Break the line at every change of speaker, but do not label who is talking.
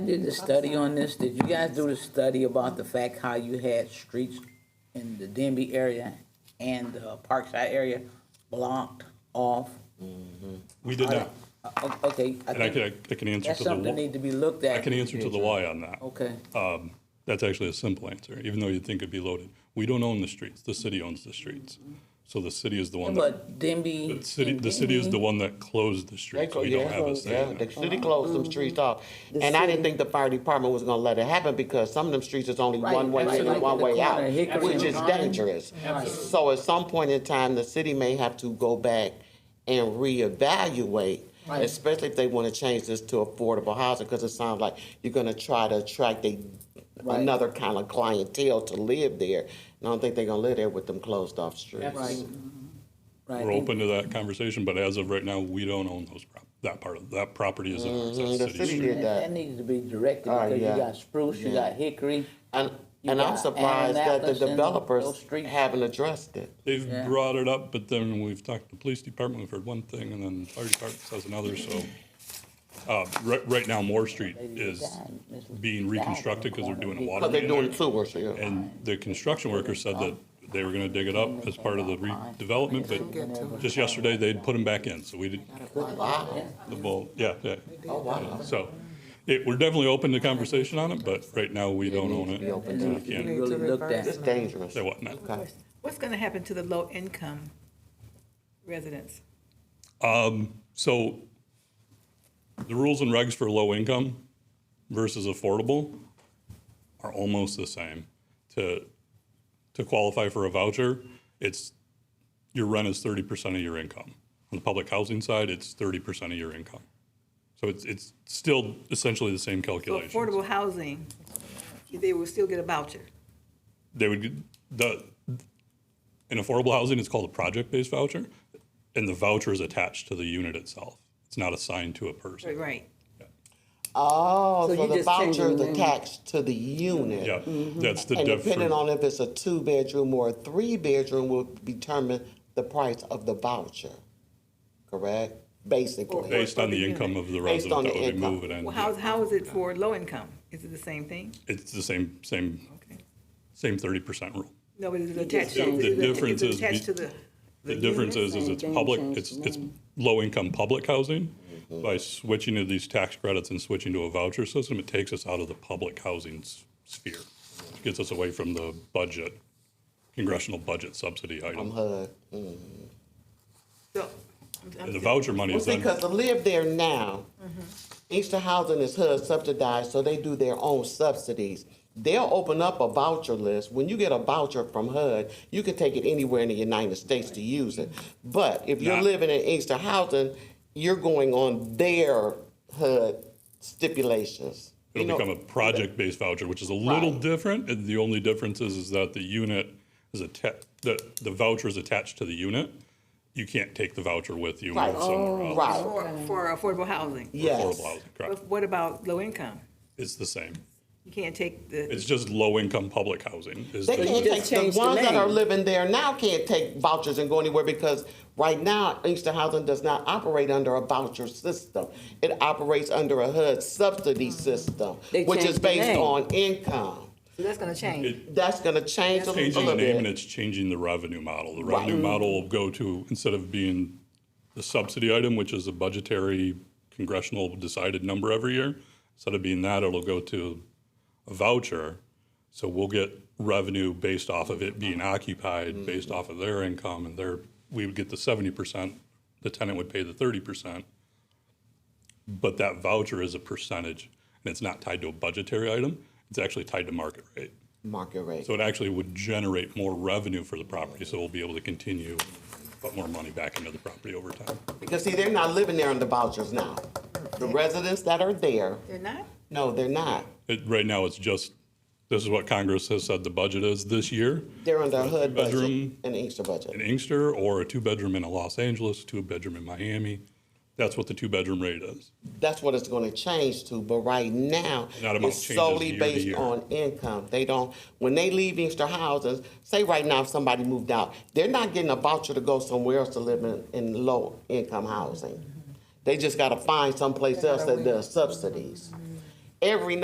Did the study on this, did you guys do the study about the fact how you had streets in the Denby area and the Parkside area blocked off?
We did not,
Uh, o- Okay, I
and I can,
think
I can answer
that's
to the
something that
why.
need to be looked at.
I can answer to the why on that.
Okay,
Um, That's actually a simple answer, even though you'd think it'd be loaded. We don't own the streets, the city owns the streets. So the city is the one that,
but Denby.
the city, the city is the one that closed the
They
streets.
clo-
We
yeah,
don't have a say
yeah,
in
the
it.
city closed
Mm-hmm.
some streets off, and I didn't think the fire department was gonna let it happen because some of them streets is only
Right,
one way in
absolutely.
and one way out,
Corner, Hickory
which
and
is
Vine.
dangerous. So at some point in time, the city may have to go back and reevaluate,
Right.
especially if they wanna change this to affordable housing, cause it sounds like you're gonna try to attract a,
Right.
another kind of clientele to live there. And I don't think they're gonna live there with them closed off streets.
Right. Right.
We're open to that conversation, but as of right now, we don't own those, prop- that part of, that property is ours,
Mhm, the
that's city
city
street.
did.
That, that needs to be directed
Oh,
because
yeah.
you got spruce, you
Yeah.
got hickory.
And,
You
and I'm
got
surprised that the
Annapolis and those
developers
streets.
haven't addressed it.
They've
Yeah.
brought it up, but then we've talked to the police department, we've heard one thing, and then fire department says another, so. uh, Right, right now, Moore Street is being reconstructed because they're doing a water
But
main
they're doing
there.
sewer, so yeah.
And the construction worker said that they were gonna dig it up as part of the redevelopment, but just yesterday, they'd put them back in, so we didn't,
Wow.
the ball, yeah, yeah.
Oh, wow.
So, it, we're definitely open to conversation on it, but right now, we don't own it. and we
You
can't
really looked
It's
at.
dangerous.
Say what now?
Okay.
What's gonna happen to the low-income residents?
So the rules and regs for low income versus affordable are almost the same. To, to qualify for a voucher, it's, your rent is thirty percent of your income. On the public housing side, it's thirty percent of your income. So it's, it's still essentially the same
So
calculation.
affordable housing, they will still get a voucher.
They would, get- the, in affordable housing, it's called a project-based voucher, and the voucher is attached to the unit itself. It's not assigned to a person.
Right.
Oh,
So
so
you
the
just changing
voucher is
the name.
attached to the unit.
Yeah, that's the
mm-hmm. And
difference.
depending on if it's a two-bedroom or a three-bedroom will determine the price of the voucher, correct? Basically,
Based on the income of the
Based
resident
on
that
the
would
income.
move it in.
Well, how, how is it for low-income? Is it the same thing?
It's the same, same,
Okay.
same thirty percent rule.
No, but is it attached?
The- the
is it- is it
difference is
Attached
be-
to the,
The difference is, is it's public, it's, it's low-income public housing.
Mm-hmm.
By switching to these tax credits and switching to a voucher system, it takes us out of the public housing s- sphere. It Gets us away from the budget, congressional budget subsidy
from
item.
HUD.
so. I'm- I'm
And the
just-
voucher money is
Well,
then,
because to live there now, Easter Housing is HUD subsidized, so they do their own subsidies. They'll open up a voucher list. When you get a voucher from HUD, you can take it anywhere in the United States to use it. But if you're
Not-
living in Easter Housing, you're going on their HUD stipulations. You
it'll
know,
become a project-based voucher, which is a little
Right.
different. And the only difference is, is that the unit is attached, the, the voucher is attached to the unit. You can't take the voucher with you and
Right. Oh,
live somewhere else.
Right,
For, for affordable housing.
yes.
Affordable housing, correct.
But What about low-income?
It's the same.
You can't take the,
It's just low-income public housing. is
They
the-
can't
just
take, the
changed the
ones that are
name.
living there now can't take vouchers and go anywhere because right now Inkster Housing does not operate under a voucher system. It operates under a HUD
Mm-hmm.
subsidy system,
They
which is
changed the
based
name.
on income.
so that's gonna change.
That's gonna change a
Changing Mm-hmm. the
little
name and
bit.
it's changing the revenue model. The revenue model will go to, instead of being the subsidy item, which is a budgetary congressional decided number every year, instead of being that, it'll go to a voucher. So we'll get revenue based off of it being occupied, based off of their income and their, we would get the seventy percent, the tenant would pay the thirty percent. But that voucher is a percentage and it's not tied to a budgetary item. It's actually tied to market rate.
Market rate.
So it actually would generate more revenue for the property, so we'll be able to continue put more money back into the property over time.
Because see, they're not living there under vouchers now. The residents that are there,
They're not?
no, they're not.
It, right now, it's just, this is what Congress has said the budget is this year.
They're under a HUD budget
Bedroom.
and Inkster
An
budget.
Inkster or a two-bedroom in Los Angeles, two-bedroom in Miami, that's what the two-bedroom rate is.
That's what it's gonna change to, but right now,
That amount
it's
changes
solely
year to
based
year.
on income. They don't, when they leave Inkster houses, say right now if somebody moved out, they're not getting a voucher to go somewhere else to live in, in low-income housing. They just gotta find someplace else that does subsidies. every